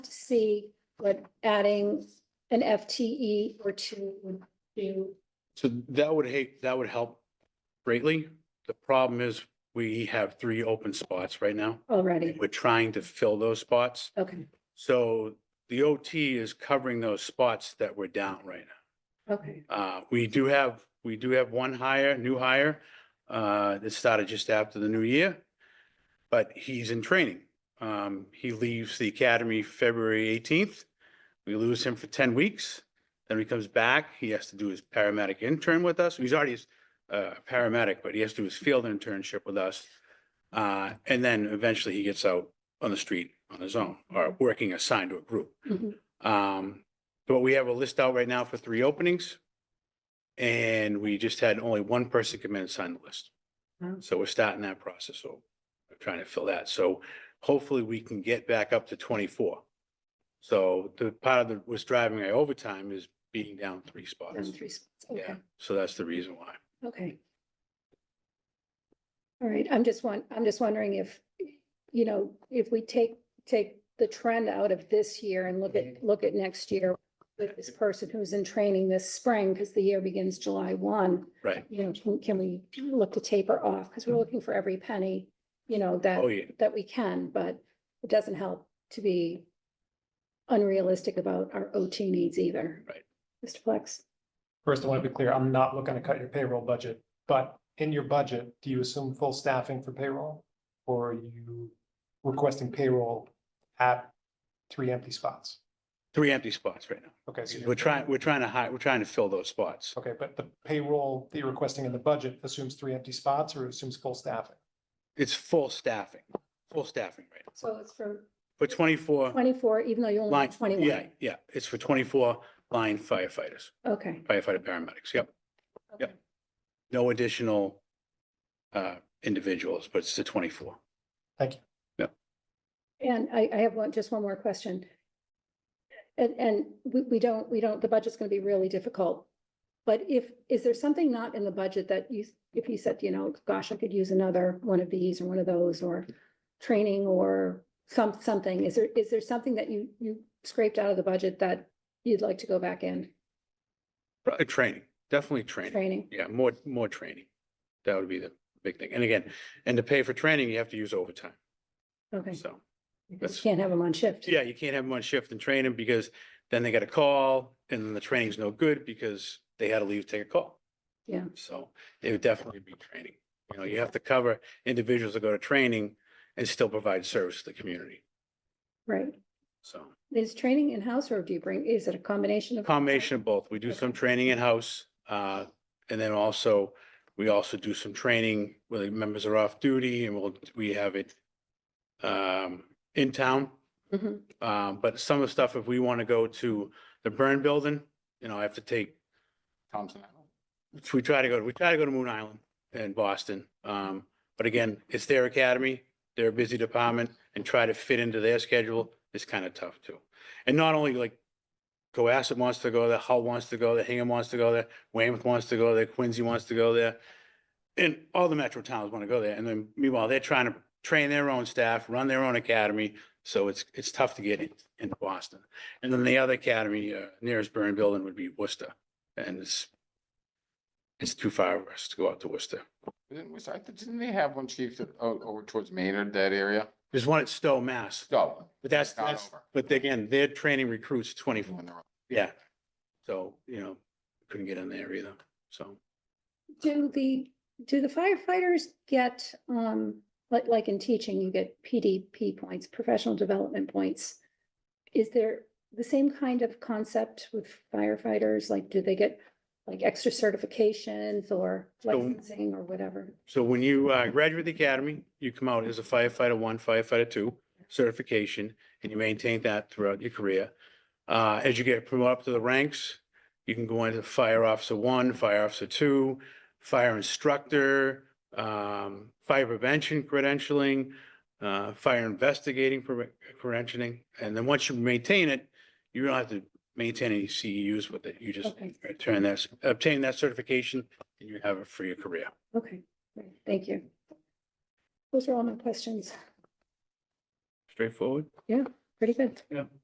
to see what adding an FTE or two would do. So that would hate, that would help greatly. The problem is we have three open spots right now. already. We're trying to fill those spots. Okay, So the OT is covering those spots that we're down right now. okay, Uh, we do have, we do have one hire, new hire, uh, that started just after the new year. But he's in training. Um, he leaves the academy February eighteenth. We lose him for ten weeks. Then he comes back. He has to do his paramedic intern with us. He's already uh, a paramedic, but he has to do his field internship with us. Uh, and then eventually he gets out on the street on his own or working assigned to a group. Mhm. Um, but we have a list out right now for three openings. And we just had only one person come in and sign the list. Wow. So we're starting that process. So we're trying to fill that. So hopefully we can get back up to twenty-four. So the part of the, what's driving my overtime is being down three spots. down three spots, Yeah, okay, so that's the reason why. okay. All right, I'm just want, I'm just wondering if, you know, if we take, take the trend out of this year and look at, look at next year with this person who's in training this spring, because the year begins July one, Right. you know, can, can we look to taper off? Because we're looking for every penny, you know, that. Oh, yeah. that we can, but it doesn't help to be unrealistic about our OT needs either. Right. Mr. Flex, First, I want to be clear, I'm not looking to cut your payroll budget, but in your budget, do you assume full staffing for payroll? Or are you requesting payroll at three empty spots? Three empty spots right now. Okay, so. you're- We're trying, we're trying to hide, we're trying to fill those spots. Okay, but the payroll that you're requesting in the budget assumes three empty spots or assumes full staffing? It's full staffing, full staffing right now. so it's for For twenty-four. twenty-four, even though you only Line, have yeah, twenty-one. yeah, it's for twenty-four line firefighters, Okay. firefighter paramedics, yep. Yep. okay. No additional uh individuals, but it's the twenty-four. And I, I have one, just one more question. And, and we, we don't, we don't, the budget's gonna be really difficult. But if, is there something not in the budget that you, if you said, you know, gosh, I could use another one of these or one of those or training or some, something, is there, is there something that you, you scraped out of the budget that you'd like to go back in, Probably uh, Training, definitely training. training? Yeah, more, more training. That would be the big thing. And again, and to pay for training, you have to use overtime, Okay, so. you that's- can't have them on shift. Yeah, you can't have them on shift and train them because then they got a call and then the training's no good because they had to leave, to take a call. Yeah. So it would definitely be training. You know, you have to cover individuals that go to training and still provide service to the community. Right, So is training in-house or do you bring, is it a combination of? combination of both. We do some training in-house, uh, and then also we also do some training where the members are off duty and we'll, we have it um, in town. Mhm, Um, but some of the stuff, if we want to go to the burn building, you know, I have to take. Thompson Island. We try to go, we try to go to Moon Island and Boston. Um, but again, it's their academy, they're a busy department and try to fit into their schedule is kind of tough too. And not only like Cohasset wants to go there, Hull wants to go there, Hingham wants to go there, Weymouth wants to go there, Quincy wants to go there. And all the metro towns want to go there. And then meanwhile, they're trying to train their own staff, run their own academy. So it's, it's tough to get in, into Boston. And then the other academy, uh, nearest burn building would be Worcester. And it's, it's too far for us to go out to Worcester. Didn't we, I thought- didn't they have one chief that, o- over towards Maynard, that area? There's one at Stowe, Mass, No. but that's, not that's, over. but again, they're training recruits twenty-four, When they're- yeah. So, you know, couldn't get in there either, so. Do the, do the firefighters get, um, like, like in teaching, you get PDP points, professional development points? Is there the same kind of concept with firefighters? Like, do they get like extra certifications or So- licensing or whatever? So when you uh, graduate the academy, you come out as a firefighter one, firefighter two certification, and you maintain that throughout your career. Uh, As you get promoted up to the ranks, you can go into fire officer one, fire officer two, fire instructor, um, fire prevention credentialing, uh, fire investigating pre- credentialing. And then once you maintain it, you don't have to maintain any CEUs with it. You just Okay. turn that, obtain that certification, and you have it for your career. Okay, great, thank you. Those are all my questions. Straightforward. Pretty good.